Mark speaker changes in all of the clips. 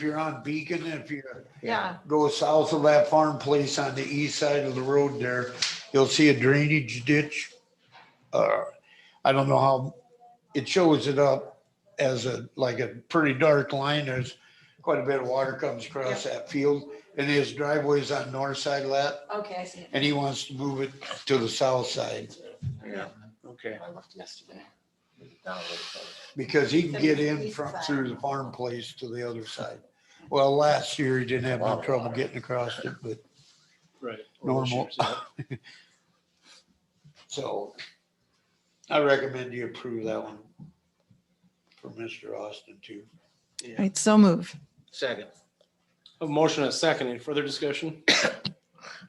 Speaker 1: If you're on Beacon, if you
Speaker 2: Yeah,
Speaker 1: go south of that farm place on the east side of the road there, you'll see a drainage ditch. Uh, I don't know how, it shows it up as a, like a pretty dark line. There's quite a bit of water comes across that field. And his driveway's on north side of that,
Speaker 2: okay, I see. it.
Speaker 1: and he wants to move it to the south side.
Speaker 2: Yeah.
Speaker 1: Okay.
Speaker 2: I left yesterday.
Speaker 1: Because he can get
Speaker 2: So
Speaker 1: in
Speaker 2: east
Speaker 1: from
Speaker 2: side.
Speaker 1: through the farm place to the other side. Well, last year he didn't have no trouble getting across it, but
Speaker 3: Right.
Speaker 1: normal. So I recommend you approve that one for Mr. Austin too.
Speaker 4: Right, so move.
Speaker 5: Second.
Speaker 3: A motion and a second. Any further discussion?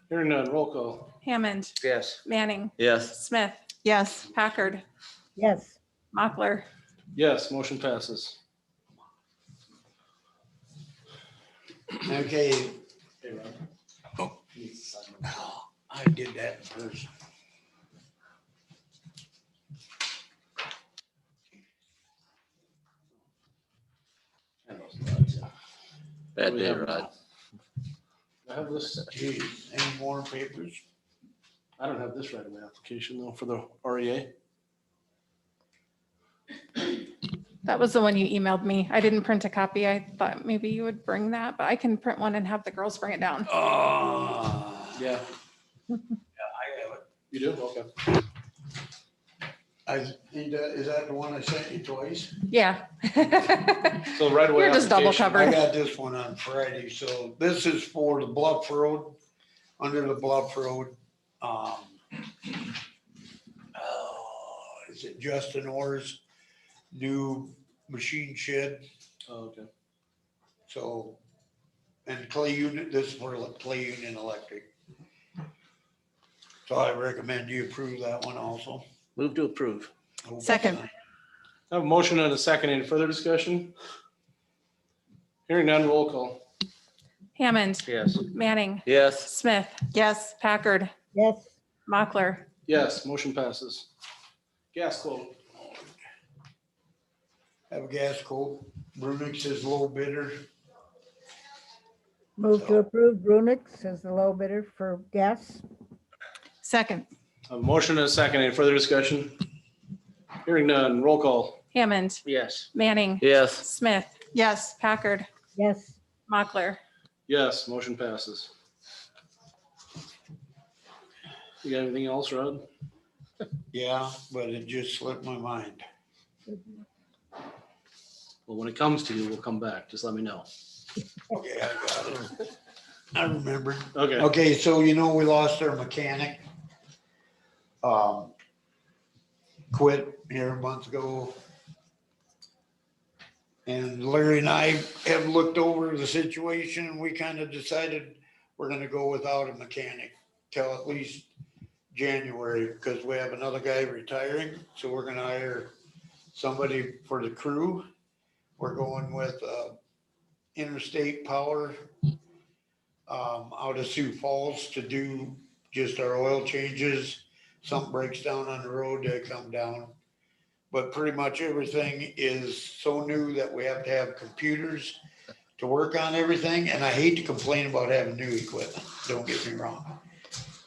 Speaker 3: Hearing none, roll call.
Speaker 6: Hammond,
Speaker 5: Yes.
Speaker 6: Manning,
Speaker 5: Yes.
Speaker 6: Smith,
Speaker 4: Yes,
Speaker 6: Packard,
Speaker 7: yes,
Speaker 6: Mochler,
Speaker 3: Yes, motion passes.
Speaker 1: Okay,
Speaker 3: Hey, Rob.
Speaker 5: Oh.
Speaker 1: I did that in person.
Speaker 3: What do
Speaker 5: Bad
Speaker 3: we
Speaker 5: day,
Speaker 3: have
Speaker 5: Rod.
Speaker 3: now? I have this,
Speaker 1: Geez, any more papers?
Speaker 3: I don't have this right away application though for the E REA.
Speaker 6: that was the one you emailed me. I didn't print a copy. I thought maybe you would bring that, but I can print one and have the girls bring it down.
Speaker 1: Ah, yeah,
Speaker 3: Yeah,
Speaker 1: I have it.
Speaker 3: you do? Okay.
Speaker 1: I, he does- is that the one I sent you twice?
Speaker 6: Yeah.
Speaker 3: So right away.
Speaker 6: We're just double
Speaker 3: application.
Speaker 6: covered.
Speaker 1: I got this one on Friday, so this is for the Bluff Road, under the Bluff Road. Um oh, Is it Justin Orr's new machine shed?
Speaker 3: Oh, Okay.
Speaker 1: So, and Clay Union, this is for Le- Clay Union Electric. So I recommend you approve that one also.
Speaker 5: Move to approve.
Speaker 4: Second.
Speaker 3: I have a motion and a second. Any further discussion? Hearing none, roll call.
Speaker 6: Hammond,
Speaker 5: Yes.
Speaker 6: Manning,
Speaker 5: Yes.
Speaker 6: Smith,
Speaker 4: yes,
Speaker 6: Packard,
Speaker 7: yes,
Speaker 6: Mochler,
Speaker 3: Yes, motion passes. Gas quote.
Speaker 1: Have a gas quote. Brunix is low bidder.
Speaker 7: move to approve Brunix as the low bidder for gas,
Speaker 4: second,
Speaker 3: A motion and a second. Any further discussion? Hearing none, roll call.
Speaker 6: Hammond,
Speaker 5: Yes.
Speaker 6: Manning,
Speaker 5: Yes.
Speaker 6: Smith,
Speaker 4: yes,
Speaker 6: Packard,
Speaker 7: yes,
Speaker 6: Mochler,
Speaker 3: Yes, motion passes. You got anything else, Rod?
Speaker 1: Yeah, but it just slipped my mind.
Speaker 5: Well, when it comes to you, we'll come back. Just let me know.
Speaker 1: Okay, I got it. I remember.
Speaker 3: Okay,
Speaker 1: Okay, so you know, we lost our mechanic. Um, Quit here a month ago. And Larry and I have looked over the situation and we kind of decided we're gonna go without a mechanic till at least January, because we have another guy retiring, so we're gonna hire somebody for the crew. We're going with uh, Interstate Power um, out of Sioux Falls to do just our oil changes. Something breaks down on the road, they come down. But pretty much everything is so new that we have to have computers to work on everything, and I hate to complain about having new equipment, don't get me wrong.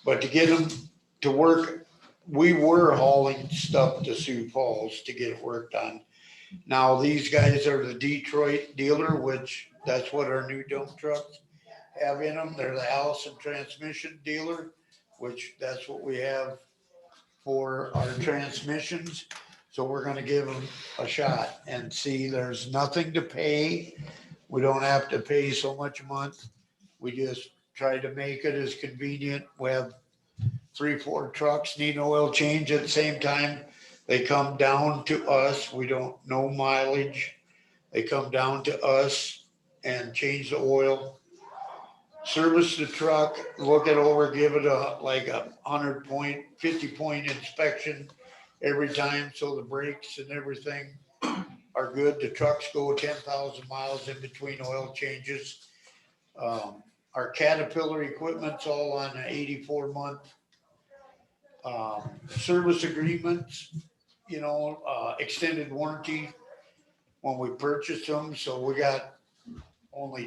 Speaker 1: But to get them to work, we were hauling stuff to Sioux Falls to get it worked on. Now, these guys are the Detroit dealer, which that's what our new dump trucks have in them. They're the Allison Transmission Dealer, which that's what we have for our transmissions. So we're gonna give them a shot and see, there's nothing to pay. We don't have to pay so much a month. We just try to make it as convenient. We have three, four trucks need an oil change at the same time. They come down to us. We don't know mileage. They come down to us and change the oil service the truck, look it over, give it a, like a hundred point, fifty point inspection every time, so the brakes and everything are good. The trucks go ten thousand miles in between oil changes. Um, our Caterpillar equipment's all on an eighty-four month um, service agreements, you know, uh, extended warranty when we purchased them, so we got only